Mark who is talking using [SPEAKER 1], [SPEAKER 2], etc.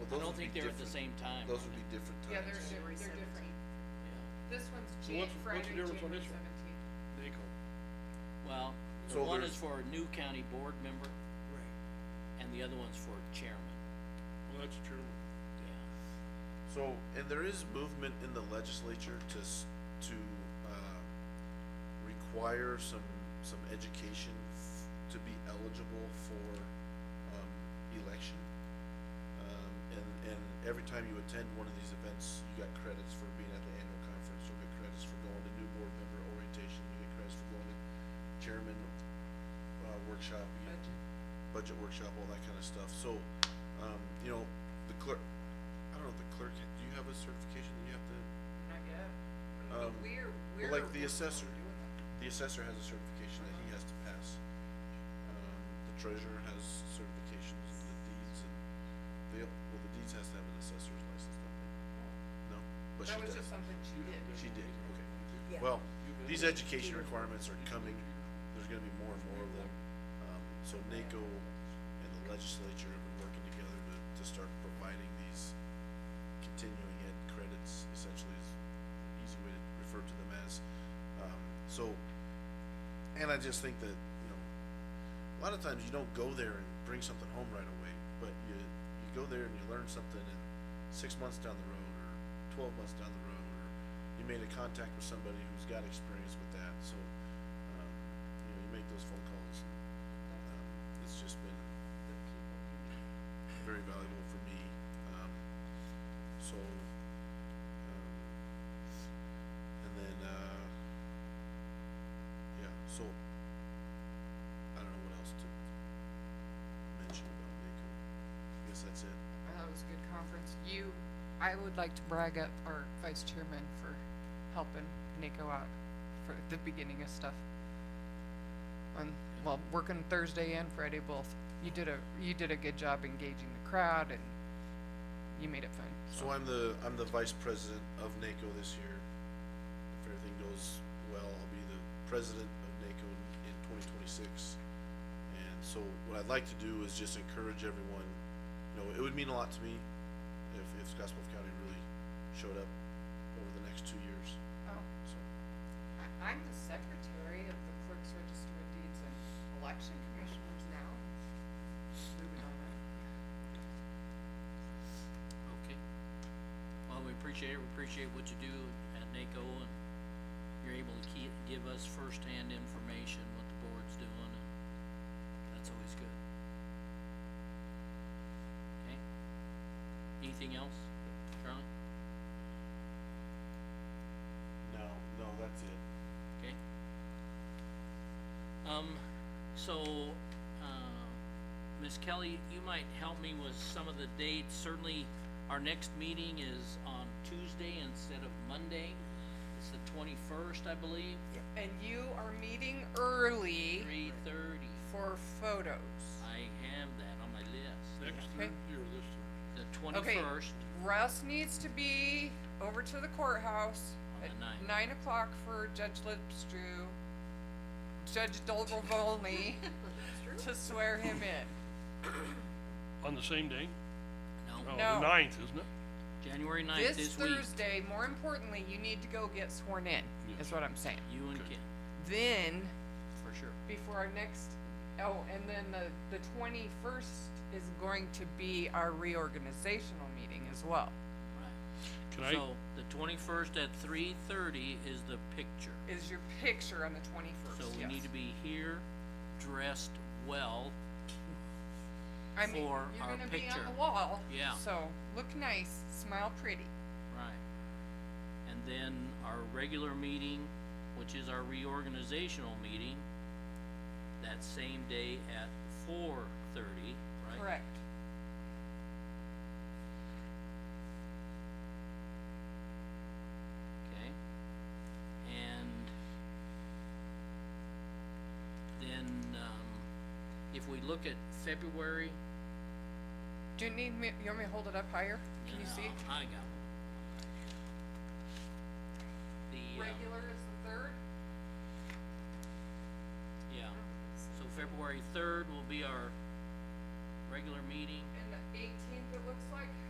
[SPEAKER 1] I
[SPEAKER 2] Those
[SPEAKER 1] don't
[SPEAKER 2] would
[SPEAKER 1] think
[SPEAKER 2] be
[SPEAKER 1] they're at the same
[SPEAKER 2] different.
[SPEAKER 1] time.
[SPEAKER 2] Those
[SPEAKER 1] are
[SPEAKER 2] would be different
[SPEAKER 3] Yeah, they're,
[SPEAKER 2] times.
[SPEAKER 3] they're, they're different.
[SPEAKER 1] they? Yeah.
[SPEAKER 3] This one's
[SPEAKER 4] So
[SPEAKER 3] Jan,
[SPEAKER 4] what's- what's the
[SPEAKER 3] Friday, January
[SPEAKER 4] difference on
[SPEAKER 3] seventeenth.
[SPEAKER 4] this one? NACO.
[SPEAKER 1] Well, the
[SPEAKER 2] So
[SPEAKER 1] one
[SPEAKER 2] there's-
[SPEAKER 1] is for a new county board member
[SPEAKER 4] Right.
[SPEAKER 1] and the other one's for chairman,
[SPEAKER 4] Well, that's true.
[SPEAKER 1] yeah.
[SPEAKER 2] So, and there is movement in the legislature to, s- to, uh, require some, some education f- to be eligible for, um, election. Um, and, and every time you attend one of these events, you got credits for being at the annual conference, you'll get credits for going to new board member orientation, you get credits for going to chairman, uh, workshop, you get budget workshop, all that kind of stuff. So, um, you know, the clerk, I don't know if the clerk, do you have a certification that you have to,
[SPEAKER 3] Not yet.
[SPEAKER 2] um,
[SPEAKER 3] We're,
[SPEAKER 2] but
[SPEAKER 3] we're.
[SPEAKER 2] like the
[SPEAKER 3] working on
[SPEAKER 2] assessor,
[SPEAKER 3] doing that.
[SPEAKER 2] the assessor has a certification that he has to pass. Um, the treasurer has certifications and the deeds and, they, well, the deeds has to have an assessor's license, don't they? No, but she
[SPEAKER 3] That was
[SPEAKER 2] does.
[SPEAKER 3] just something she
[SPEAKER 4] You don't
[SPEAKER 3] did.
[SPEAKER 4] do
[SPEAKER 2] She did, okay.
[SPEAKER 5] Yeah.
[SPEAKER 2] Well,
[SPEAKER 4] You've
[SPEAKER 2] these
[SPEAKER 4] been-
[SPEAKER 2] education requirements are coming, there's gonna be more and more of them. Um, so NACO and the legislature have been working together to, to start providing these continuing ed credits, essentially is an easy way to refer to them as. Um, so, and I just think that, you know, a lot of times you don't go there and bring something home right away, but you, you go there and you learn something and six months down the road or twelve months down the road or you made a contact with somebody who's got experience with that, so, um, you know, you make those phone calls and, um, it's just been very valuable for me, um, so, um, and then, uh, yeah, so, I don't know what else to mention about NACO, I guess that's it.
[SPEAKER 3] I thought it was a good conference. You, I would like to brag up our vice chairman for helping Nico out for the beginning of stuff. On, well, working Thursday and Friday both. You did a, you did a good job engaging the crowd and you made it fun.
[SPEAKER 2] So I'm the, I'm the vice president of NACO this year. If everything goes well, I'll be the president of NACO in- in twenty twenty-six. And so what I'd like to do is just encourage everyone, you know, it would mean a lot to me if, if Scottsbluff County really showed up over the next two years,
[SPEAKER 3] Oh,
[SPEAKER 2] so.
[SPEAKER 3] I, I'm the secretary of the clerk's register of deeds and election commissioners now. Moving on up.
[SPEAKER 1] Okay. Well, we appreciate it, we appreciate what you do at NACO and you're able to keep, give us firsthand information, what the board's doing and that's always good. Okay? Anything else, Charlie?
[SPEAKER 2] No, no, that's it.
[SPEAKER 1] Okay. Um, so, uh, Ms. Kelly, you might help me with some of the dates. Certainly, our next meeting is on Tuesday instead of Monday. It's the twenty-first, I believe,
[SPEAKER 3] And you are meeting early
[SPEAKER 1] three thirty.
[SPEAKER 3] for photos.
[SPEAKER 1] I have that on my list.
[SPEAKER 4] Next
[SPEAKER 3] Okay.
[SPEAKER 4] Thursday or this Thursday?
[SPEAKER 1] The
[SPEAKER 3] Okay,
[SPEAKER 1] twenty-first,
[SPEAKER 3] Russ needs to be over to the courthouse
[SPEAKER 1] On
[SPEAKER 3] at
[SPEAKER 1] the ninth.
[SPEAKER 3] nine o'clock for Judge Lipstrew, Judge Dolgovolny, to swear him in.
[SPEAKER 4] On the same day?
[SPEAKER 1] no,
[SPEAKER 4] Oh,
[SPEAKER 3] No.
[SPEAKER 4] the ninth, isn't it?
[SPEAKER 1] January ninth
[SPEAKER 3] This
[SPEAKER 1] this week,
[SPEAKER 3] Thursday, more importantly, you need to go get sworn in, is what I'm saying.
[SPEAKER 1] you and Ken,
[SPEAKER 3] Then,
[SPEAKER 1] for sure.
[SPEAKER 3] before our next, oh, and then the, the twenty-first is going to be our reorganizational meeting as well.
[SPEAKER 1] Right.
[SPEAKER 4] Can I,
[SPEAKER 1] So, the twenty-first at three thirty is the picture.
[SPEAKER 3] Is your picture on the twenty-first,
[SPEAKER 1] So
[SPEAKER 3] yes.
[SPEAKER 1] we need to be here, dressed well,
[SPEAKER 3] I mean,
[SPEAKER 1] for
[SPEAKER 3] you're
[SPEAKER 1] our
[SPEAKER 3] gonna be
[SPEAKER 1] picture.
[SPEAKER 3] on the wall.
[SPEAKER 1] Yeah.
[SPEAKER 3] So look nice, smile pretty.
[SPEAKER 1] right? And then our regular meeting, which is our reorganizational meeting, that same day at four thirty, right?
[SPEAKER 3] Correct.
[SPEAKER 1] Okay, and then, um, if we look at February.
[SPEAKER 3] Do you need me? You want me to hold it up higher? Can you
[SPEAKER 1] no,
[SPEAKER 3] see?
[SPEAKER 1] uh, I got one. The, um,
[SPEAKER 3] Regular is the third.
[SPEAKER 1] yeah, so February third will be our regular meeting.
[SPEAKER 3] And the eighteenth, it looks like.